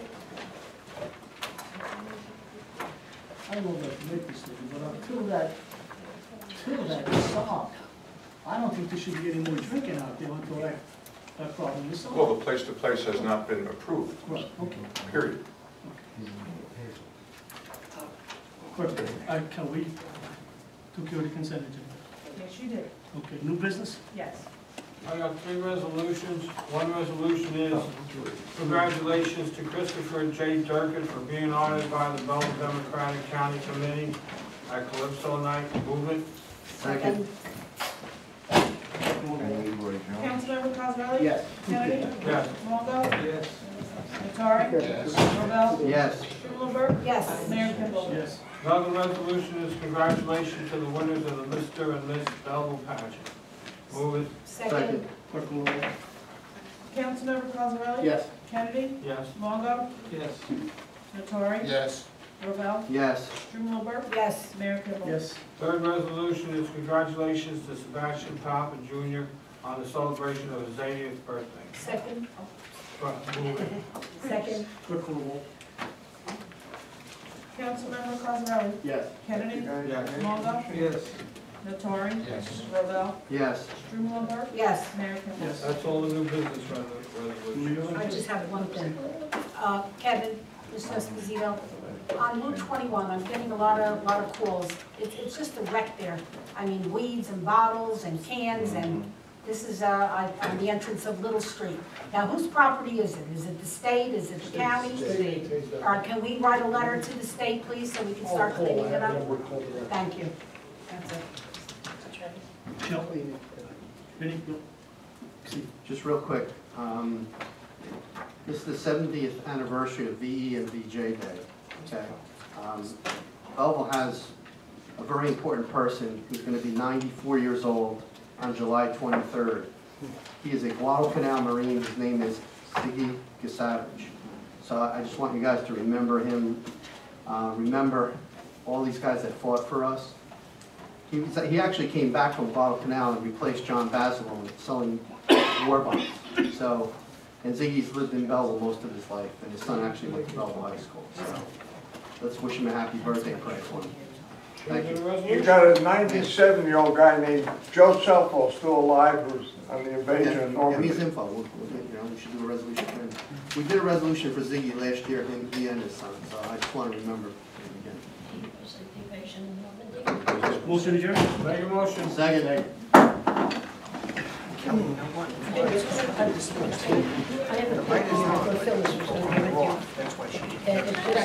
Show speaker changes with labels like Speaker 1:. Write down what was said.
Speaker 1: I don't know if make this thing, but until that, until that is solved, I don't think there should be any more drinking out there until that, that problem is solved.
Speaker 2: Well, the place-to-place has not been approved,
Speaker 1: Right, okay.
Speaker 2: period.
Speaker 1: Perfect. All right, can we, took care of the consent agenda.
Speaker 3: Yes, you did,
Speaker 1: Okay, new business?
Speaker 3: yes.
Speaker 4: I got three resolutions. One resolution is congratulations to Christopher J. Durkin for being honored by the Belleville Democratic County Committee at Calypso Night Movement.
Speaker 5: Second.
Speaker 3: Councilmember Cosrally?
Speaker 5: Yes.
Speaker 3: Kennedy?
Speaker 4: Yes.
Speaker 3: Longo?
Speaker 4: Yes.
Speaker 3: Nattari?
Speaker 5: Yes.
Speaker 3: Robel?
Speaker 5: Yes.
Speaker 3: Schumelberg? Yes. Mayor Kimball?
Speaker 1: Yes.
Speaker 4: Another resolution is congratulations to the winners of the Mr. and Miss Belleville pageant. Move it,
Speaker 5: Second.
Speaker 1: Clerk will roll.
Speaker 3: Councilmember Cosrally?
Speaker 5: Yes.
Speaker 3: Kennedy?
Speaker 4: yes.
Speaker 3: Longo?
Speaker 4: Yes.
Speaker 3: Nattari?
Speaker 5: Yes.
Speaker 3: Robel?
Speaker 5: Yes.
Speaker 3: Schumelberg? Yes. Mayor Kimball?
Speaker 1: Yes.
Speaker 4: Third resolution is congratulations to Sebastian Papa Jr. on the celebration of his 80th birthday.
Speaker 3: Second.
Speaker 4: Move it.
Speaker 3: Second.
Speaker 1: Clerk will roll.
Speaker 3: Councilmember Cosrally?
Speaker 5: Yes.
Speaker 3: Kennedy?
Speaker 4: Yes.
Speaker 3: Longo?
Speaker 4: Yes.
Speaker 3: Nattari?
Speaker 5: Yes.
Speaker 3: Robel?
Speaker 5: Yes.
Speaker 3: Schumelberg? Yes. Mayor Kimball?
Speaker 1: Yes.
Speaker 4: That's all the new business resol- resolution.
Speaker 1: Mayor?
Speaker 6: I just have one thing. Uh, Kevin, Mr. Esposito, on Route 21, I'm getting a lot of, lot of calls. It's, it's just a wreck there. I mean, weeds and bottles and cans, and this is uh, on on the entrance of Little Street. Now, whose property is it? Is it the state, is it the county? Or can we write a letter to the state, please, so we can start cleaning it up? Thank you. That's it.
Speaker 1: Shall we? Benny? No. See,
Speaker 5: Just real quick, um, this is the seventieth anniversary of VE and VJ Day, okay? Um, Belleville has a very important person who's gonna be ninety-four years old on July twenty-third. He is a Guadalcanal Marine, his name is Siggy Gasavage. So I I just want you guys to remember him, uh, remember all these guys that fought for us. He was, he actually came back from Guadalcanal and replaced John Basilone selling war bonds. So, and Ziggy's lived in Belleville most of his life, and his son actually went to Belleville High School. So, let's wish him a happy birthday, pray for him. Thank you.
Speaker 4: Is there a
Speaker 7: You
Speaker 4: resolution?
Speaker 7: got a ninety-seven-year-old guy named Joe Selfo still alive who's on the invasion of
Speaker 5: Give me his
Speaker 7: Normandy.
Speaker 5: info, we'll, we'll, do it, you know, we should do a resolution for him. We did a resolution for Ziggy last year, him, he and his son, so I just wanna remember him again.
Speaker 1: Motion adjourned?
Speaker 4: Make a motion.
Speaker 5: Second.
Speaker 6: I have a, I have a fill this with something with you. And it's just-